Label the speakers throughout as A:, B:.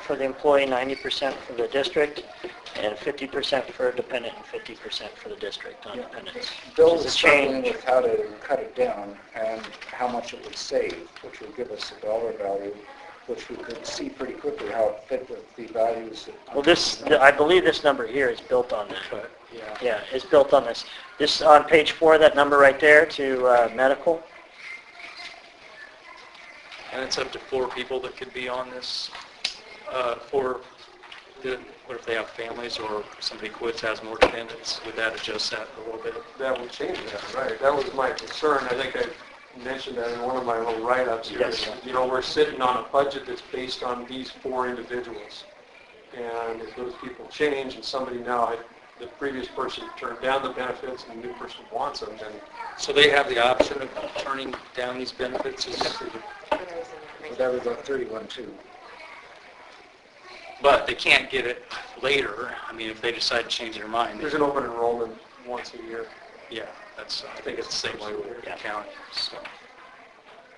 A: for the employee, 90% for the district, and 50% for a dependent, and 50% for the district on dependents.
B: Bill's
A: It's a
B: struggling
A: change.
B: with how to cut it down and how much it would save, which would give us a dollar value, which we could see pretty quickly how it fit with the values. that- uh,
A: Well, this, I believe this number here is built on that.
B: But, yeah.
A: Yeah, it's built on this. This, on page four, that number right there to uh, medical,
C: And it's up to four people that could be on this, uh, for, the- what if they have families or somebody quits, has more dependents? Would that adjust that a little bit?
D: That would change that, right? That was my concern. I think I mentioned that in one of my little write-ups here.
A: Yes.
D: You know, we're sitting on a budget that's based on these four individuals. And if those people change and somebody now, the previous person turned down the benefits and the new person wants them, then
C: So they have the option of turning down these benefits? is-
B: But that was about 31 too.
C: But they can't get it later. I mean, if they decide to change their mind,
D: there's an open enrollment once a year.
C: yeah, that's, I think it's the same way with the county, so.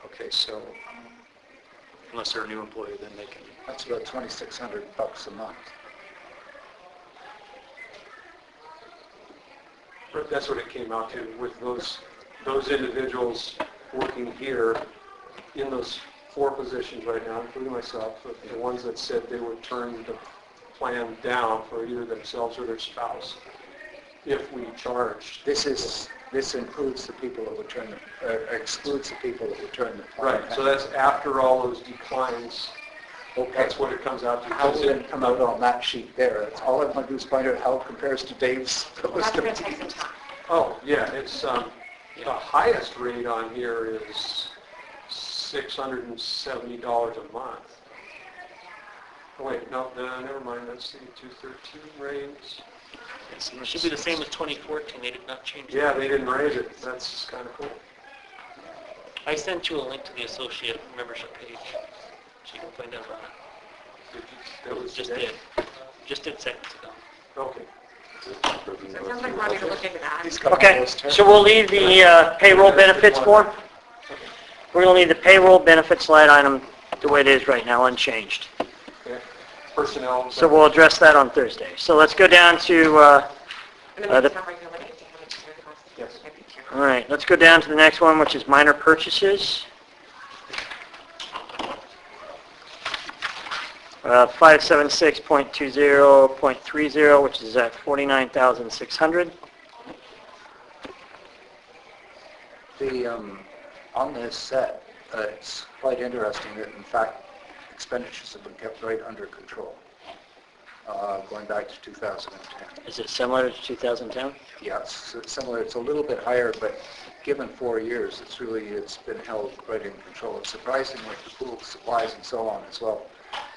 C: Okay, so um, unless they're a new employee, then they can,
B: That's about 2,600 bucks a month.
D: That's what it came out to, with those, those individuals working here in those four positions right now, including myself, the- the ones that said they would turn the plan down for either themselves or their spouse if we charged.
B: This is, this includes the people that would turn, the- uh, excludes the people that would turn the.
D: Right, so that's after all those declines,
B: Okay.
D: that's what it comes out to.
B: How would it come out on that sheet there? That's all I want to do is find out how it compares to Dave's.
E: That's going to take some time.
D: Oh, yeah, it's, um, the highest rate on here is $670 a month. Oh, wait, no, no, never mind, that's the 213 rates.
F: It should be the same as 2014, they did not change it.
D: Yeah, they didn't raise it, that's kind of cool.
F: I sent you a link to the associate membership page, so you can find out about it.
D: Did you- That was
F: Just
D: today?
F: did, just did seconds ago.
D: Okay.
E: So it sounds like we're going to look into that.
B: He's got all
A: Okay,
B: those terms.
A: so we'll leave the uh, payroll benefits form. We're going to leave the payroll benefits line item the way it is right now, unchanged.
D: Yeah. Personnel.
A: So we'll address that on Thursday. So let's go down to, uh,
E: And
A: Uh,
E: then
A: the-
E: it's not like you're looking to have it turned off.
D: Yes.
E: I think you're-
A: all right, let's go down to the next one, which is minor purchases. Uh, 576.20.30, which is at 49,600.
B: The, um, on this set, uh, it's quite interesting that in fact expenditures have been kept right under control, uh, going back to 2010.
A: Is it similar to 2010?
B: Yeah, it's s- similar, it's a little bit higher, but given four years, it's really, it's been held right in control. It's surprising with the pool supplies and so on as well,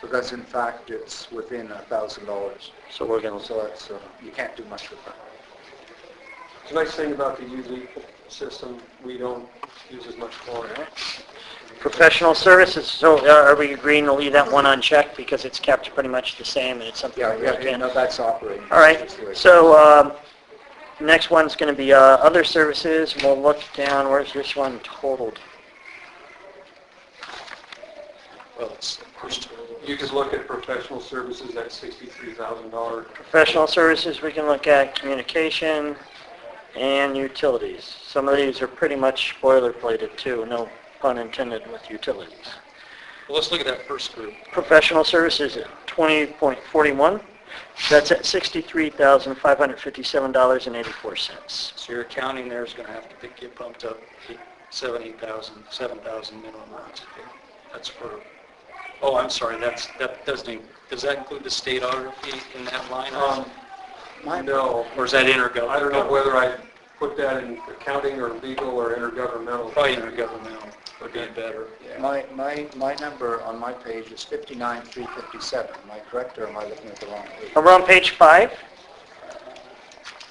B: because in fact, it's within $1,000.
A: So we're going to
B: So it's, uh, you can't do much with that.
D: The nice thing about the UZ system, we don't use as much chlorine.
A: Professional services, so uh, are we agreeing to leave that one unchecked because it's kept pretty much the same and it's something
B: Yeah,
A: we
B: yeah,
A: really
B: yeah,
A: can't?
B: no,
A: All
B: that's operating.
A: right,
B: That's the way it
A: so um, next one's going to be uh, other services. We'll look down, where's this one totaled?
C: well, it's the first.
D: You could look at professional services, that $63,000.
A: Professional services, we can look at communication and utilities. Some of these are pretty much boilerplated too, no pun intended with utilities.
C: Well, let's look at that first group.
A: Professional services at 20.41, that's at $63,557.84.
C: So your accounting there is going to have to get pumped up eight- seven, eight thousand, seven thousand minimum amounts. That's for, oh, I'm sorry, that's, that doesn't, in- does that include the state auditor fee in that line?
D: Um,
C: item?
D: No,
C: Or is that intergovernmental?
D: I don't know whether I put that in accounting or legal or intergovernmental.
C: Probably intergovernmental would be better.
B: is. My, my, my number on my page is 59,357. Am I correct or am I looking at the wrong page?
A: We're on page five.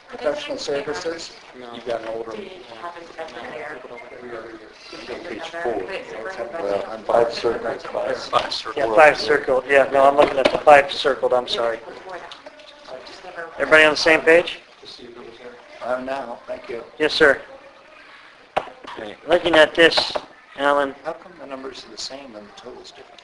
B: Professional services?
C: You've got an older.
E: Do you have it over there?
D: Every other year.
E: Is it another- but it's over the budget.
B: I'm five circles
C: It's five circle.
A: Yeah, five circled, yeah, no, I'm looking at the five circled, I'm sorry.
E: Before that. Just never-
A: Everybody on the same page?
D: Just see if it was there.
B: I'm now, thank you.
A: Yes, sir. Looking at this, Alan,
B: How come the numbers are the same and the total's different?